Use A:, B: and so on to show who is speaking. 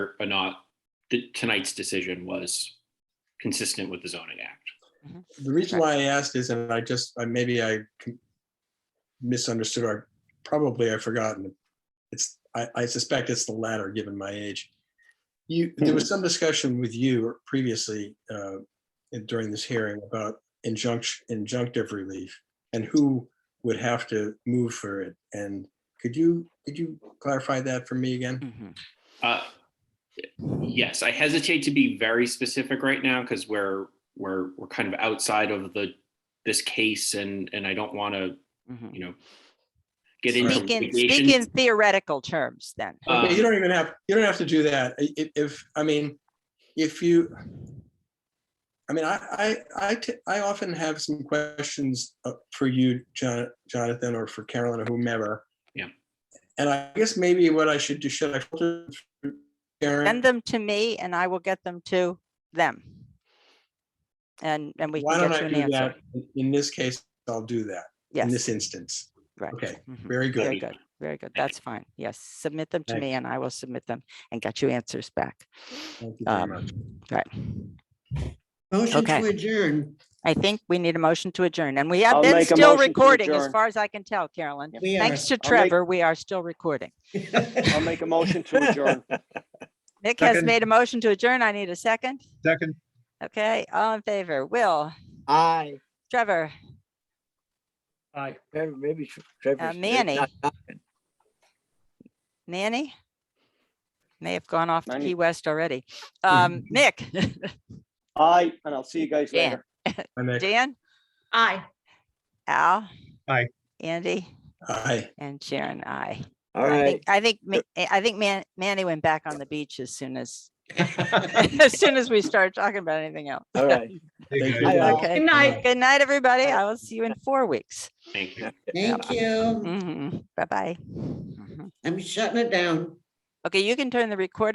A: or not th- tonight's decision was consistent with the zoning act.
B: The reason why I asked is, and I just, I maybe I com- misunderstood or probably I've forgotten. It's, I, I suspect it's the latter, given my age. You, there was some discussion with you previously uh, in- during this hearing about injunction, injunctive relief and who would have to move for it. And could you, could you clarify that for me again?
C: Mhm.
A: Uh, Yes, I hesitate to be very specific right now because we're, we're, we're kind of outside of the, this case and, and I don't want to,
C: Mhm.
A: you know, get into
C: Speak in, speak
A: litigation.
C: in theoretical terms then.
A: Uh,
B: Yeah, you don't even have, you don't have to do that. I- i- If, I mean, if you, I mean, I, I, I, t- I often have some questions uh, for you, Jon- Jonathan, or for Carolyn or whomever.
A: Yeah.
B: And I guess maybe what I should do, should I filter through
C: Send
B: Karen?
C: them to me and I will get them to them. And, and we
B: Why
C: can
B: don't
C: get
B: I
C: you an
B: do that?
C: answer.
B: In- In this case, I'll do that, in
C: Yes.
B: this instance.
C: Right.
B: Okay,
C: Mhm.
B: very
C: Very
B: good.
C: good, very good. That's fine. Yes, submit them to
B: Thank-
C: me and I will submit them and get you answers back.
B: Thank you very
C: Um,
B: much.
C: Right.
D: Motion
C: Okay.
D: to adjourn.
C: I think we need a motion to adjourn and we have
E: I'll
C: been
E: make a
C: still
E: motion to
C: recording as
E: adjourn.
C: far as I can tell, Carolyn.
D: We are.
C: Thanks to
E: make-
C: Trevor, we are still recording.
E: I'll make a motion to adjourn.
C: Nick has
F: Second.
C: made a motion to adjourn. I need a second.
F: Second,
C: Okay, all in favor? Will,
D: Aye.
C: Trevor,
E: Aye. Maybe Tre- Trevor's.
C: uh, Manny.
E: not talking.
C: Manny? May have gone off to
E: Manny.
C: Key West already. Um, Nick,
E: Aye, and I'll see you guys
C: Dan.
E: later.
B: Hi, Nick.
C: Dan,
G: Aye.
C: Al.
F: Aye.
C: Andy
B: Hi.
C: and Sharon, I.
E: All
C: I
E: right.
C: think, I think, Ma- eh, I think Man, Manny went back on the beach as soon as, as soon as we started talking about anything else.
E: All right.
B: Thank
F: Thank
B: you.
F: you.
E: Aye.
C: Okay.
G: Good night.
C: Good night, everybody. I will see you in four weeks.
A: Thank you.
D: Thank you.
C: Mhm. Bye-bye. Mhm.
D: I'm shutting it down.
C: Okay, you can turn the recorder.